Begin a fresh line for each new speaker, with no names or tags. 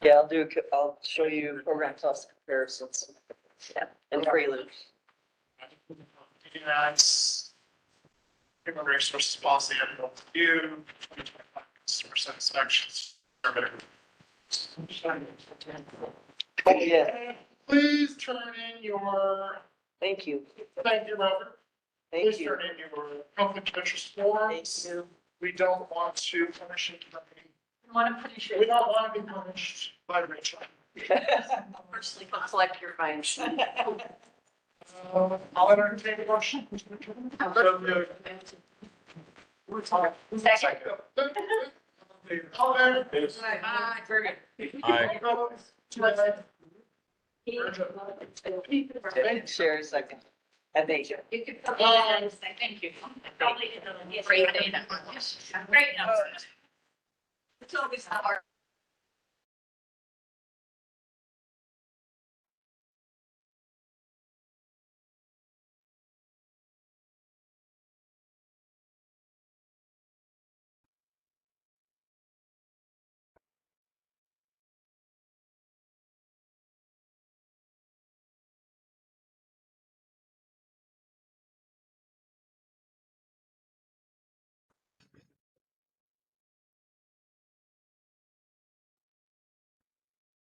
Yeah, I'll do, co- I'll show you program cost comparisons. Yeah. And free loops.
And that's human resources policy had built to do, customer satisfaction survey.
Oh, yeah.
Please turn in your,
Thank you,
thank you, Robert.
thank
Please
you.
turn in your conflict of interest forms.
you.
We don't want to punish anybody.
You want to finish
We
it,
don't want to be punished by Rachel.
personally go collect your fines.
Uh, I'll entertain a motion. So moved.
Second.
All in favor?
Aye.
Aye.
Share a second. And thank you.
You could put that in, say, thank you. Probably in the- Great data. Great numbers. It's always hard.